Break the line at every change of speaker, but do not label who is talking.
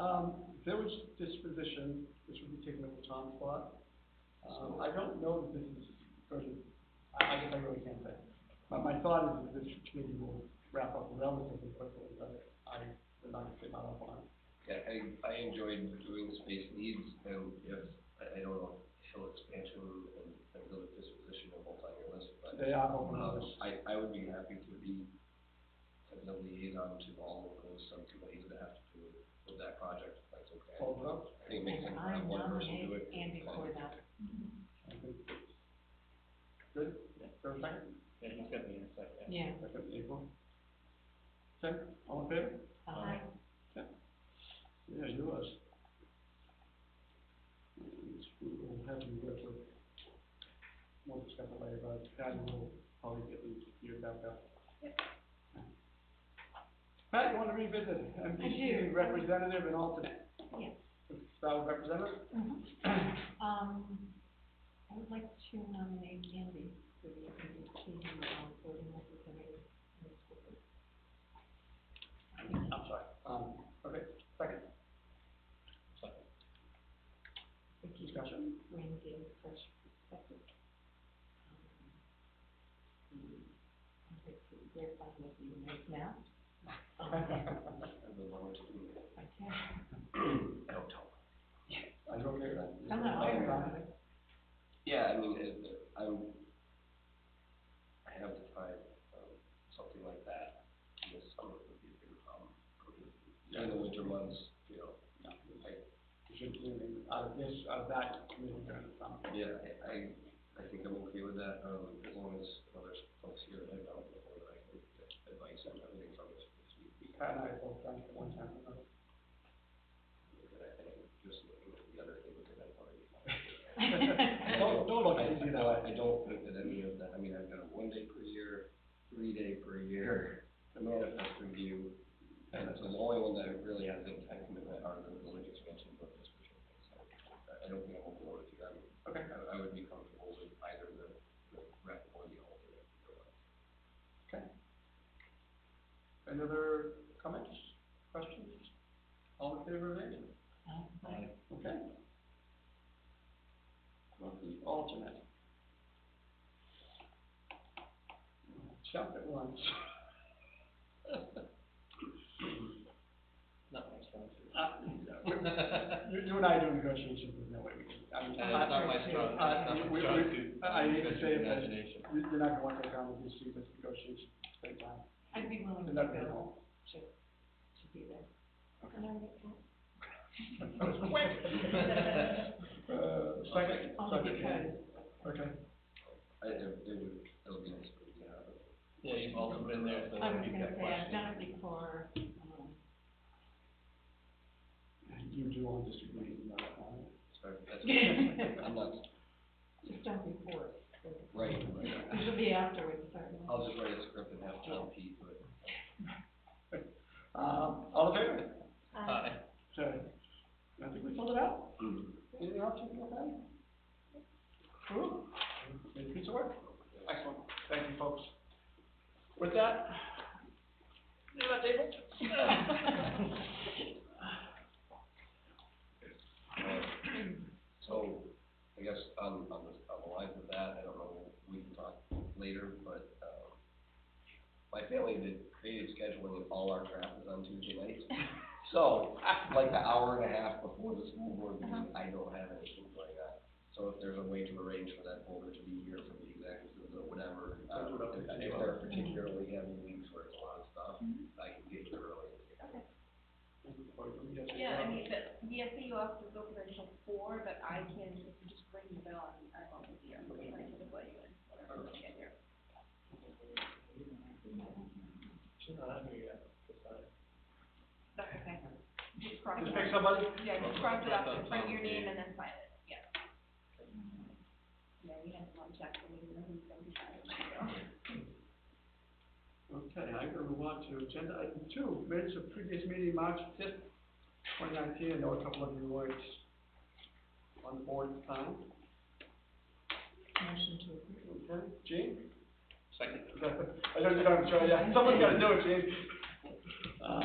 Um, village disposition, this would be taking over Tom's spot. Um, I don't know if this is, going to- I, I guess I really can't say. But my thought is that this committee will wrap up relatively quickly, but I, I'm not gonna not up on it.
Yeah, I, I enjoyed doing space needs and yes, I, I don't know, hill expansion and, and village disposition are both on your list, but.
They are open
Um,
hours.
I, I would be happy to be as a liaison to all of those subcommittees that have to do with that project, if that's okay.
Hold up.
I think it makes sense to have one person do it.
Andy Corda.
Good, fair second,
Yeah, he's got the insight,
Yeah.
yeah.
second, April. Okay, all in favor?
Aye.
Yeah, you was. It's- We'll have you work with, we'll discuss it later, but Patty will probably get you geared back up. Pat, you wanna revisit
I
MPC
do.
representative and alternate?
Yes.
Let's Start with representative?
Mhm. Um, I would like to nominate Andy for the MDT, um, voting representative in the school. board. I think
I'm sorry. Um, okay, second,
Vicky
discussion.
Green gave a fresh perspective. Um, he- I think he's very fond of you right now. Um,
I've been wanting to do it.
I can't,
I don't tell.
Are you okay with that?
I'm not worried about it.
Yeah, I mean, it, it- I'm, I have to find, um, something like that in the summer would be a bigger problem. for me. In the winter months, you know,
You should, you know, out of this, out of that, committee, um,
yeah, I- I, I think I'm okay with that, um, as long as other folks here, I don't know whether I can get advice on everything from this. this week.
Pat and I have both done it at one time or another.
And I think just looking at the other things that I've already.
Don't, don't look at it, you know,
I, I don't think that any of that, I mean, I've got a one day per year, three day per year, a manifest review, and it's the only one that really has any time commitment are the village expansion book description. So I I don't think I'm overboard with you, I'm,
okay.
I, I would be comfortable with either the, the rep or the alternate. either one.
Any other comments, questions? All in favor of Andy?
Um,
Okay. Well, the alternate. Jump at once.
Not my strong suit.
Uh, You, you and I do negotiations, there's no way we can, I mean,
Uh, it's not Uh, my strong, that's not my
we- we-
strong suit.
I- I hate to say it, but-
Imagination.
you- you're not gonna want to take on with these students negotiations, big time.
I'd be willing to
They're not gonna
go
help.
to, to be there. And I would-
That was quick. Uh, second,
Only
second, Andy.
because,
okay.
I, it, it would, it'll be nice for you to have it.
Yeah, you've also been there, so
I was
you've got
gonna say, I've
questions.
done it before, um,
You do want this to be, uh,
Sorry, that's, I'm not,
just done before. so-
right, right.
It'll be afterwards, certainly.
I'll just write a script and have John P. do it.
Um, all in favor?
Hi.
Okay. I think we filled it out. Anything else you can add? Cool. Made a piece of work. Excellent. Thank you, folks. With that. Is that table?
Uh, So, I guess on, on the, on the lines of that, I don't know, we can talk later, but, um, my family did creative scheduling and all our crap is on Tuesday nights. So, like the hour and a half before the school board meeting, I don't have anything going on. So if there's a way to arrange for that folder to be here for the executives or whatever, uh,
That's what I'm
if
thinking
if
about.
there are particularly heavy weeks where it's a lot of stuff, I can get here early.
Yeah, I mean, the, the SAU office is open until four, but I can, if you just ring the bell, I'm, I'm always here, I'm going to let you in, whenever I get here.
She's not on here yet, that's fine.
That's okay. Just cross it
Just pick
out.
somebody.
Yeah, just cross it out,
Cross out
just write your
Tom.
name and then sign it, yeah. Yeah, we had one check, and we didn't know who's gonna be signing, so.
Okay, I'm gonna move on to agenda item two, minutes of previous meeting, March fifth, twenty nineteen. I know a couple of you weren't on the board at the time.
Motion to approve.
Okay, Gene?
Second.
I know you don't, Joe, yeah, someone's gotta do it, Gene. Uh,